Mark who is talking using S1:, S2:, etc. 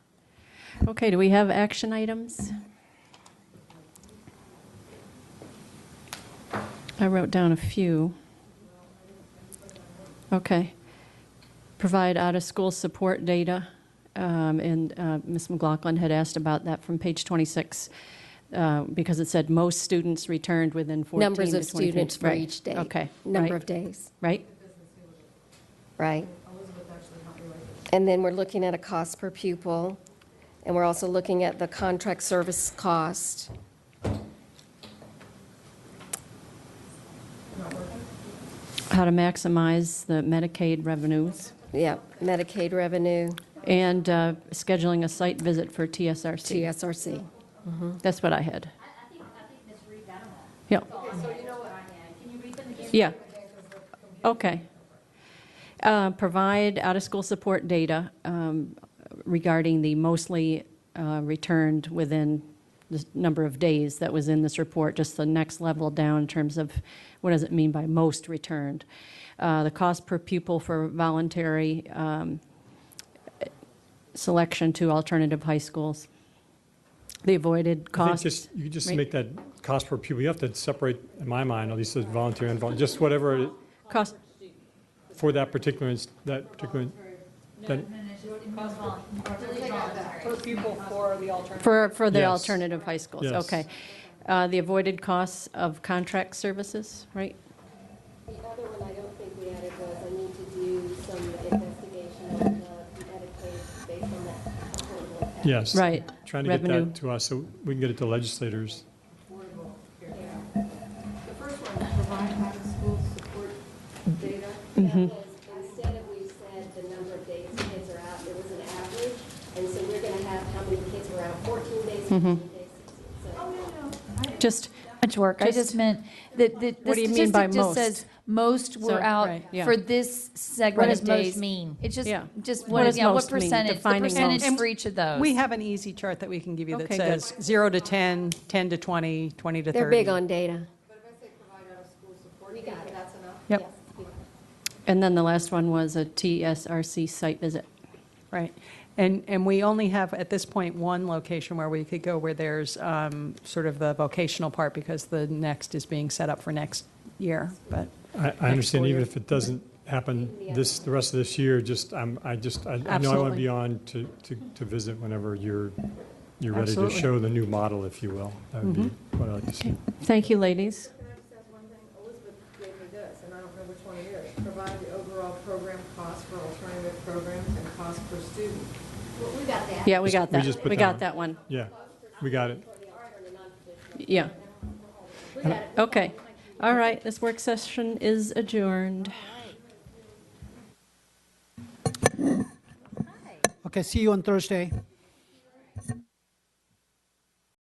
S1: Okay, do we have action items? I wrote down a few. Okay. Provide out-of-school support data, um, and uh, Ms. McLaughlin had asked about that from page 26, uh, because it said most students returned within 14 to 24.
S2: Numbers of students for
S1: Right.
S2: each day.
S1: Okay.
S2: Number
S1: Right.
S2: of days,
S1: Right?
S2: right? And then we're looking at a cost per pupil, and we're also looking at the contract service cost.
S1: How to maximize the Medicaid revenues,
S2: Yeah, Medicaid revenue,
S1: and uh, scheduling a site visit for TSRC.
S2: TSRC.
S1: That's what I had.
S3: I, I think, I think Ms. Reed got them all.
S1: Yeah,
S3: So you know what? Can you read them again?
S1: yeah. Okay. Uh, Provide out-of-school support data um, regarding the mostly uh, returned within the number of days that was in this report, just the next level down in terms of what does it mean by most returned. Uh, The cost per pupil for voluntary um, selection to alternative high schools. The avoided
S4: I think
S1: cost.
S4: just- You could just
S1: right?
S4: make that cost per pupil, you have to separate, in my mind, at least as volunteer and volunteer, just whatever, it-
S1: Cost,
S4: for that particular, inst- that particular, that-
S5: per pupil for the alternative.
S1: For, for the
S4: Yes.
S1: alternative high schools,
S4: Yes.
S1: okay. Uh, The avoided costs of contract services, right?
S6: The other one I don't think we added was, I need to do some investigation on the Medicaid based on that. affordable act.
S4: yes.
S1: Right.
S4: Trying to get
S1: Revenue.
S4: that to us, so we can get it to legislators.
S7: The first one, provide out-of-school support data.
S6: That was, instead of we said the number of days kids are out, it was an average, and so we're gonna have how many kids were out, fourteen days, fifteen days, sixteen. So
S1: Just,
S8: much work. I
S1: Just-
S8: just meant that the, the
S1: What do you mean by
S8: statistic just
S1: most?
S8: says most
S1: So,
S8: were
S1: right,
S8: out
S1: yeah.
S8: for this
S3: What
S8: segment
S3: does
S8: of
S3: most
S8: days.
S3: mean?
S8: It's just,
S1: Yeah.
S8: just
S1: What
S8: what,
S1: does
S8: yeah, what
S1: most mean?
S8: percentage, the
S1: Defining
S8: percentage
S1: most.
S8: for each of those.
S5: We have an easy chart that we can give you that
S1: Okay, good.
S5: says 0 to 10, 10 to 20, 20 to 30.
S2: They're big on data.
S7: But if I say provide out-of-school support, you think that's enough?
S5: Yep,
S1: and then the last one was a TSRC site visit.
S5: right. And, and we only have, at this point, one location where we could go where there's um, sort of the vocational part because the next is being set up for next year, but.
S4: I, I understand even if it doesn't happen this, the rest of this year, just, I'm, I just, I I know I want to
S5: Absolutely.
S4: be on to, to, to visit whenever you're, you're ready to
S5: Absolutely.
S4: show the new model, if you will. That would
S1: Mm-hmm.
S4: be what I like to see.
S1: Thank you, ladies.
S7: Can I just ask one thing? Elizabeth gave me this, and I don't know which one it is. Provide the overall program cost for alternative programs and cost per student.
S3: Well, we got that.
S1: Yeah, we got
S4: We
S1: that.
S4: just put
S1: We
S4: that
S1: got
S4: on.
S1: that one.
S4: Yeah, we got it.
S1: Yeah. Okay. All right, this work session is adjourned.
S9: Okay, see you on Thursday.